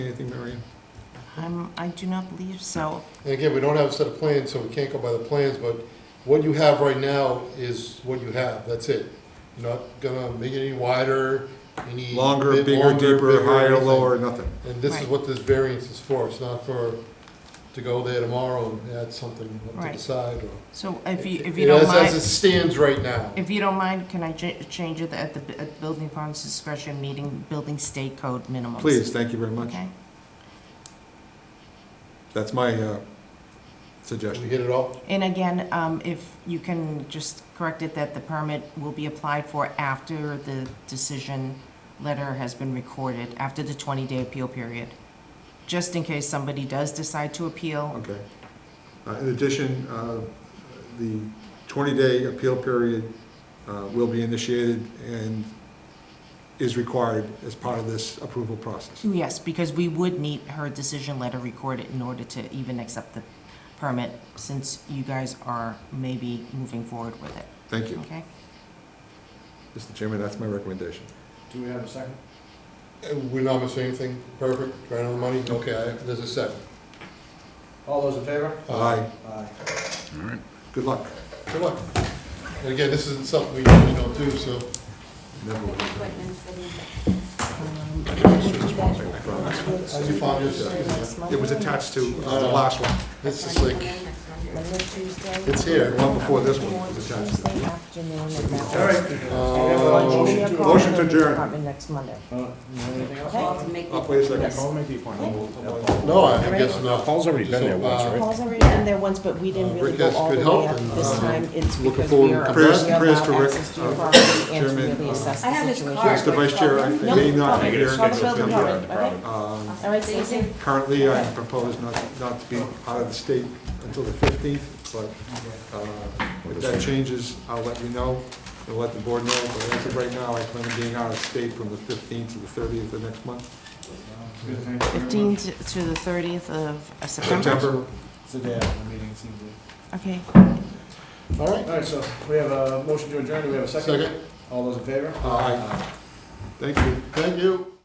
Anything, Mary Ann? I'm, I do not believe so. And again, we don't have a set of plans, so we can't go by the plans, but what you have right now is what you have, that's it. You're not gonna make it any wider, any. Longer, bit bigger, longer, deeper, bigger, higher, anything. lower, nothing. And this is Right. what this variance is for, it's not for, to go there tomorrow and add something up to Right. the side or. So if you, if you It- don't as- As it mind, stands right now, if you don't mind, can I cha- change it at the, bu- at the building department's discretion, meeting building state code minimums? Please, thank you very much. Okay, That's my uh, we suggestion. hit it all, and again, um, if you can just correct it that the permit will be applied for after the decision letter has been recorded, after the twenty-day appeal period, just in case somebody does decide to appeal. Okay. Uh, In addition, uh, the 20-day appeal period uh, will be initiated and is required as part of this approval process. Yes, because we would need her decision letter recorded in order to even accept the permit, since you guys are maybe moving forward with it, Thank you. okay? Mr. Chairman, that's my recommendation. Do we have a second? Uh, we're not missing anything, perfect, right on the money, okay, I- there's a second. All those in favor? Aye. Aye. Good luck. Good luck. And again, this isn't something we usually don't do, so. Never will. How'd you find yours? It was attached to uh, the last one. It's just like, it's here. Uh, The one before this one was attached to. All right. Do we have a Motion motion? to- motion to adjourn. Next Monday. Uh, you have Anything else? Oh, Wait a second. Call make the appointment. No, I I guess not. Paul's already been there once, right? Paul's already been there once, but we didn't really Rick go has all good the help way up and, this um, time. It's uh, looking because forward we are to prayers- only prayers allowed to Rick, access to your uh, property and to Chairman, really uh, assess I have the his situation. card. Yes, the vice chair, I may not be Nope. here. Call the building It's gonna department, be- okay? um, All right, so you can- Currently, I propose not, not to be out of the state until the 15th, but uh, if that changes, I'll let you know, and let the board know, but as of right now, I plan on being out of state from the 15th to the 30th of next month, Fifteen to to the thirtieth of uh, September. September. It's the day after the meeting, seems to Okay, All right, All right, so we have a motion to adjourn. Do we have a second? second. All those in favor? Aye. uh, Thank you. Thank you.